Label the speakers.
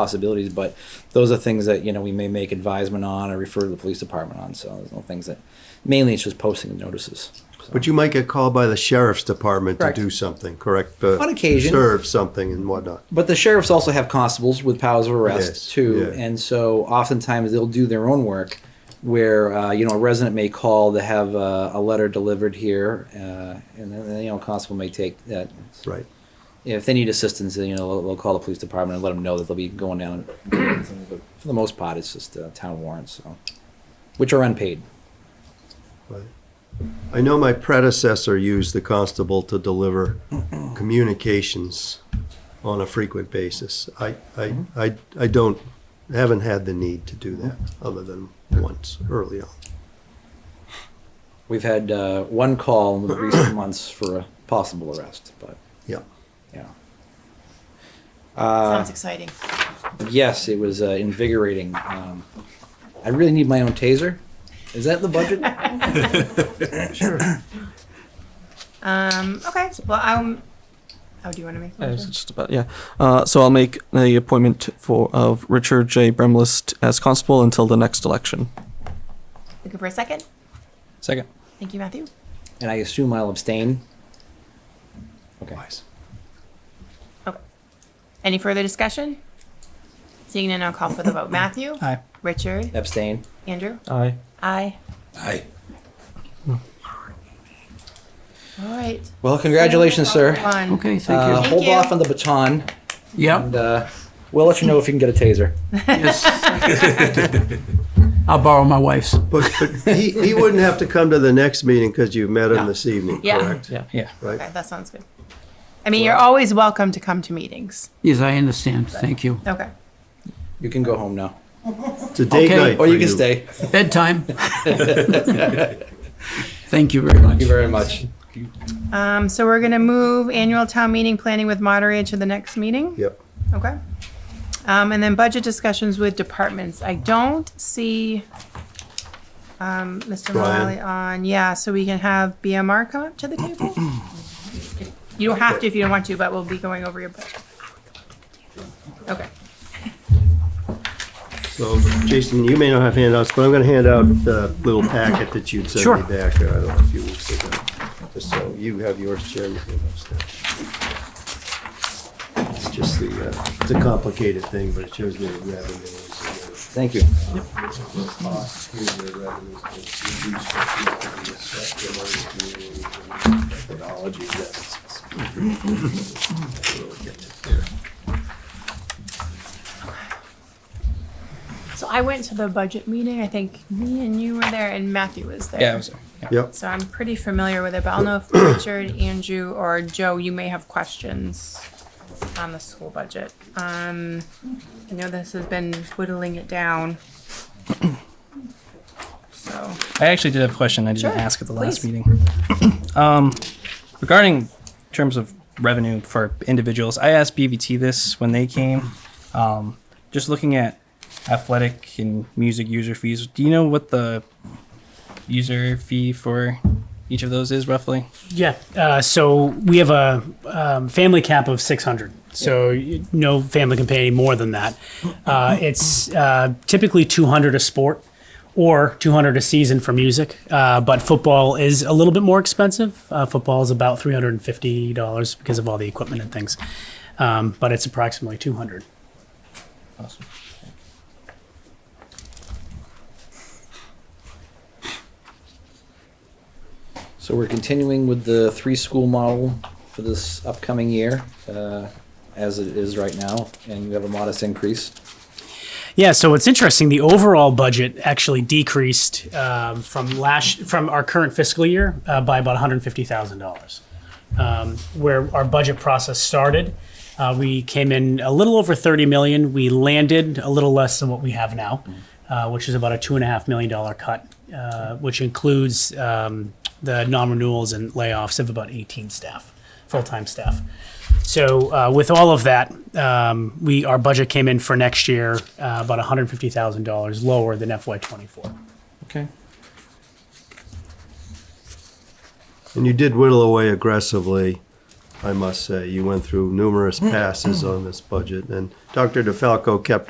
Speaker 1: possibilities, but those are things that, you know, we may make advisement on or refer to the police department on, so there's no things that, mainly it's just posting the notices. so.
Speaker 2: But you might get called by the sheriff's department
Speaker 1: Correct.
Speaker 2: to do something, correct? Uh,
Speaker 1: On occasion.
Speaker 2: Serve something and whatnot.
Speaker 1: But the sheriffs also have constables with powers of arrest
Speaker 2: Yes,
Speaker 1: too,
Speaker 2: yeah.
Speaker 1: and so oftentimes they'll do their own work, where uh, you know a resident may call to have uh, a letter delivered here, uh, and then you know a constable may take that.
Speaker 2: Right.
Speaker 1: If they need assistance, then, you know they'll, they'll call the police department and let them know that they'll be going down. And something, but for the most part, it's just uh, town warrants, so which are unpaid.
Speaker 2: right. I know my predecessor used the constable to deliver communications on a frequent basis. I, I, I, I don't, haven't had the need to do that, other than once early on.
Speaker 1: We've had uh, one call in the recent months for a possible arrest, but
Speaker 2: Yeah.
Speaker 1: yeah.
Speaker 3: Sounds
Speaker 4: Ah.
Speaker 3: exciting.
Speaker 1: Yes, it was uh, invigorating. Um, I really need my own taser. Is that in the budget?
Speaker 3: Um, okay, well, I'm, oh, do you want to make a
Speaker 4: Uh,
Speaker 3: motion?
Speaker 4: it's just about yeah. Uh, so I'll make the appointment for of Richard J. Bremlist as constable until the next election.
Speaker 3: Looking for a second?
Speaker 4: Second.
Speaker 3: Thank you, Matthew.
Speaker 1: and I assume I'll abstain. Okay.
Speaker 3: Okay. Any further discussion? Seeing none, I'll call for the vote. Matthew?
Speaker 4: Aye.
Speaker 3: Richard?
Speaker 1: Abstain.
Speaker 3: Andrew?
Speaker 4: Aye.
Speaker 3: Aye.
Speaker 5: Aye.
Speaker 3: All right.
Speaker 1: Well, congratulations, sir.
Speaker 3: One.
Speaker 5: Okay, thank
Speaker 1: Uh,
Speaker 5: you.
Speaker 1: hold
Speaker 3: you.
Speaker 1: off on the baton, and
Speaker 5: Yep,
Speaker 1: uh, we'll let you know if you can get a taser.
Speaker 5: yes. I'll borrow my wife's.
Speaker 2: But, but he, he wouldn't have to come to the next meeting because you met him this evening,
Speaker 3: Yeah.
Speaker 2: correct?
Speaker 4: Yeah.
Speaker 5: Yeah.
Speaker 2: Right?
Speaker 3: Okay, that sounds good. I mean, you're always welcome to come to meetings.
Speaker 5: Yes, I understand. Thank you.
Speaker 3: Okay.
Speaker 1: You can go home now,
Speaker 2: It's a date
Speaker 5: Okay.
Speaker 2: night
Speaker 1: or
Speaker 2: for
Speaker 1: you can stay.
Speaker 5: Bedtime. Thank you very much.
Speaker 1: Thank you very much.
Speaker 3: Um, so we're gonna move annual town meeting planning with moderator to the next meeting?
Speaker 2: Yep.
Speaker 3: Okay. Um, and then budget discussions with departments. I don't see, um, Mr.
Speaker 2: Brian.
Speaker 3: Morale on, yeah, so we can have BMR come up to the table? You don't have to if you don't want to, but we'll be going over your budget. Okay,
Speaker 2: So, Jason, you may not have handouts, but I'm gonna hand out the little packet that you'd
Speaker 5: Sure.
Speaker 2: sent me back, uh, I don't know, a few weeks ago. Just so you have yours, Jim. you can have that. It's just the, uh, it's a complicated thing, but it shows me the revenues.
Speaker 1: Thank you.
Speaker 2: and the costs. Here's the revenues that we use for the assessment and the Methodology that's. Really get it there.
Speaker 3: so I went to the budget meeting, I think me and you were there and Matthew was there.
Speaker 6: Yeah, I was there.
Speaker 2: Yep,
Speaker 3: So I'm pretty familiar with it, but I'll know if Richard, Andrew, or Joe, you may have questions on the school budget. Um, I know this has been whittling it down. So,
Speaker 6: I actually did have a question I didn't
Speaker 3: Sure,
Speaker 6: ask at the last
Speaker 3: please.
Speaker 6: meeting. Um, regarding terms of revenue for individuals, I asked BVT this when they came. Um, just looking at athletic and music user fees, do you know what the user fee for each of those is roughly?
Speaker 7: Yeah. Uh, so we have a um, family cap of 600. So you, no family can pay any more than that. Uh, it's uh, typically 200 a sport or 200 a season for music. Uh, but football is a little bit more expensive. Uh, football is about $350 because of all the equipment and things. Um, but it's approximately 200.
Speaker 6: Awesome.
Speaker 1: So we're continuing with the three-school model for this upcoming year, uh, as it is right now, and you have a modest increase.
Speaker 7: Yeah, so it's interesting. The overall budget actually decreased um, from last from our current fiscal year uh, by about one hundred fifty thousand dollars. um, where our budget process started. Uh, we came in a little over 30 million. We landed a little less than what we have now, uh, which is about a two and a half million dollar cut, uh, which includes um, the non-renewals and layoffs of about 18 staff, full-time staff. So uh, with all of that, um, we our budget came in for next year uh, about 150 thousand dollars lower than FY24.
Speaker 1: Okay.
Speaker 2: And you did whittle away aggressively I must say. You went through numerous passes on this budget, and Dr. DeFalco kept